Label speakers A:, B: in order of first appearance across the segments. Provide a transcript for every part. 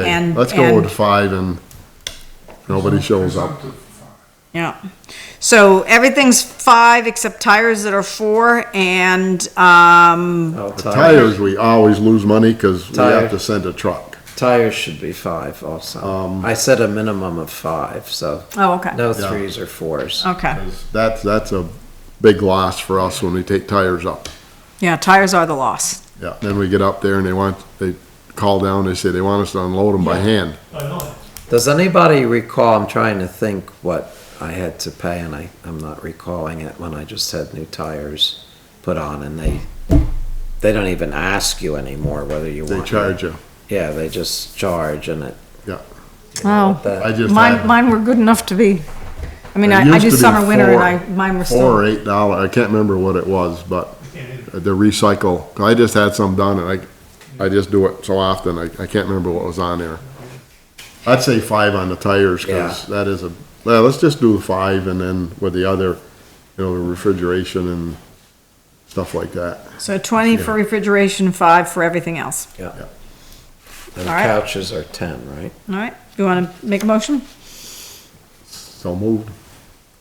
A: Okay,
B: And-
A: Let's go
B: and-
A: with five and if nobody shows up.
C: Presumptive.
B: Yeah. So everything's five except tires that are four and, um,
D: Oh, tires.
A: Tires, we always lose money because we have
D: Tire.
A: to send a truck.
D: Tires should be five also. I said a minimum of five, so
B: oh, okay.
D: no
A: Um, Yeah.
D: threes or fours.
B: Okay.
A: That's, that's a big loss for us when we take tires up.
B: Yeah, tires are the loss.
A: Yeah, then we get up there and they want, they call down, they say they want us to unload them by hand.
C: I know.
D: Does anybody recall, I'm trying to think what I had to pay and I, I'm not recalling it when I just had new tires put on and they, they don't even ask you anymore whether you
A: They
D: want.
A: charge you.
D: Yeah, they just charge and it.
A: Yeah.
D: you know,
B: Oh.
D: that-
A: I just
B: Mine,
A: had
B: mine were good enough to be, I mean,
A: It
B: I, I
A: used
B: do
A: to be
B: summer, winter and
A: four.
B: I, mine
A: four
B: were still,
A: or eight dollar, I can't remember what it was, but the recycle, I just had some done and I, I just do it so often, I, I can't remember what was on there. I'd say five on the tires, cause that is a, well, let's just do five and then with the other, you know, the refrigeration and stuff like that.
B: so twenty for refrigeration, five for everything else.
D: Yeah. And
B: All right.
D: couches are ten, right?
B: All right, you wanna make a motion?
A: So moved.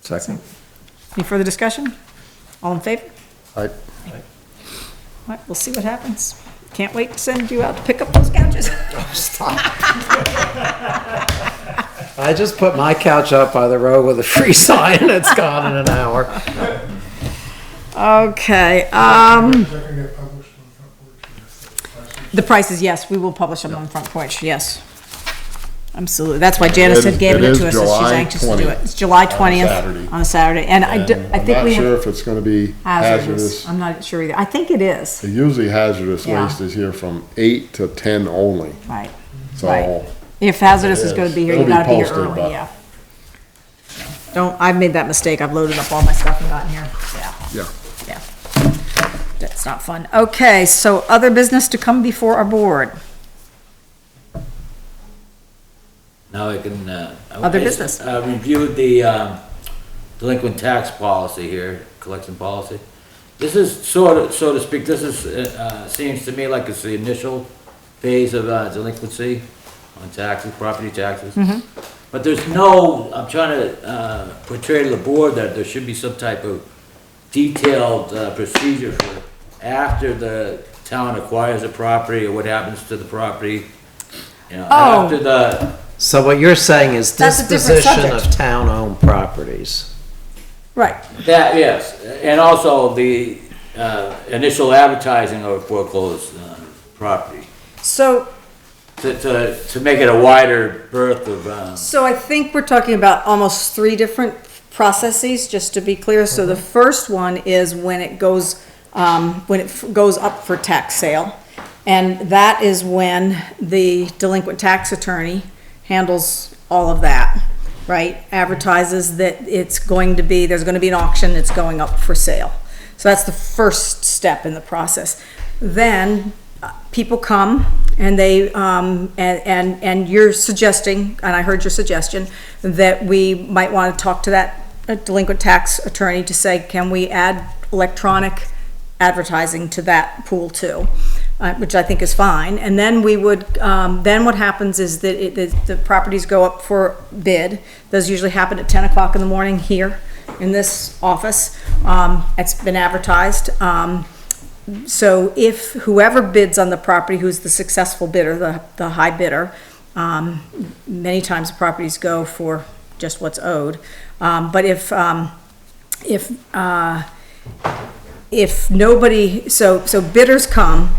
D: Second?
B: Any further discussion? All in favor?
A: I,
B: All right, we'll see what happens. Can't wait to send you out to pick up those couches.
D: I just put my couch up by the road with a free sign and it's gone in an hour.
B: Okay, um.
C: Is that gonna get published on front porch?
B: The prices, yes, we will publish them on Front Porch, yes. Absolutely, that's why Janice
A: It
B: had
A: is-
B: given
A: it
B: it
A: is
B: to us, that she's
A: July
B: anxious to do
A: 20th
B: it. It's July
A: on a
B: twentieth,
A: Saturday.
B: on a Saturday, and I,
A: and
B: do- I
A: I'm
B: think
A: not
B: we
A: sure
B: have
A: if it's gonna be hazardous.
B: hazardous, I'm not sure either, I think it is,
A: The Usually hazardous
B: Yeah.
A: waste is here from eight to ten only,
B: right.
A: so.
B: Right. If hazardous is
A: It
B: gonna
A: is.
B: be here,
A: It'll
B: you
A: be
B: gotta be here
A: posted,
B: early,
A: but-
B: yeah. Don't, I've made that mistake, I've loaded up all my stuff and gotten here, yeah,
A: Yeah.
B: yeah. That's not fun. Okay, so other business to come before our board,
E: Now I can, uh. I-
B: Other business.
E: I reviewed the, um, delinquent tax policy here, collection policy. This is sort of, so to speak, this is, uh, uh, seems to me like it's the initial phase of uh, delinquency on taxes, property taxes.
B: Mm-hmm.
E: But there's no, I'm trying to, uh, portray to the board that there should be some type of detailed uh, procedure for after the town acquires a property or what happens to the property. You know,
B: Oh.
E: after the,
D: So what you're saying is
B: That's a different
D: disposition of
B: subject.
D: town-owned properties.
B: right,
E: That, yes, and also the uh, initial advertising of foreclosed uh, property,
B: so
E: to, to, to make it a wider berth of, um,
B: So I think we're talking about almost three different processes, just to be clear. So the first one is when it goes, um, when it f- goes up for tax sale. And that is when the delinquent tax attorney handles all of that, right? Advertises that it's going to be, there's gonna be an auction, it's going up for sale. So that's the first step in the process. Then uh, people come and they, um, and, and, and you're suggesting, and I heard your suggestion, that we might want to talk to that uh, delinquent tax attorney to say, can we add electronic advertising to that pool too? Uh, which I think is fine. And then we would, um, then what happens is that it, the- the properties go up for bid. Those usually happen at ten o'clock in the morning here in this office. Um, it's been advertised. Um, so if whoever bids on the property, who's the successful bidder, the, the high bidder, um, many times properties go for just what's owed. Um, but if, um, if, uh, if nobody, so, so bidders come,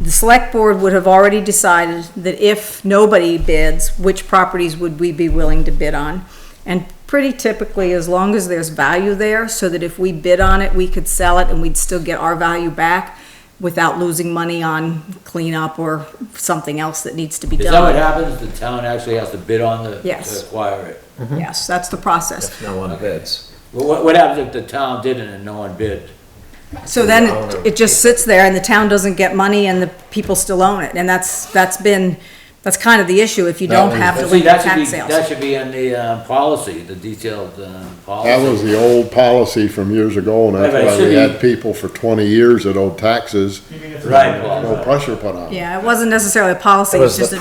B: the select board would have already decided that if nobody bids, which properties would we be willing to bid on? And pretty typically, as long as there's value there, so that if we bid on it, we could sell it and we'd still get our value back without losing money on cleanup or something else that needs to be done.
E: is that what happens? The town actually has to bid on the,
B: Yes.
E: to acquire it?
B: Yes, that's the process.
D: No one bids.
E: Well, What, what happens if the town didn't and no one bid?
B: So then it, it just sits there and the town doesn't get money and the people still own it. And that's, that's been, that's kind of the issue if you don't have
E: But see,
B: delinquent
E: that should be,
B: tax sales.
E: that should be in the, uh, policy, the detailed, um, policy.
A: That was the old policy from years ago, and that's
E: Right, but it
A: why
E: should
A: we
E: be-
A: had people for twenty years that owed taxes,
C: You mean if-
E: Right,
A: no
E: Paul.
A: pressure put on them.
B: Yeah, it wasn't necessarily a policy,
D: It
B: it's
D: was
B: just a
D: the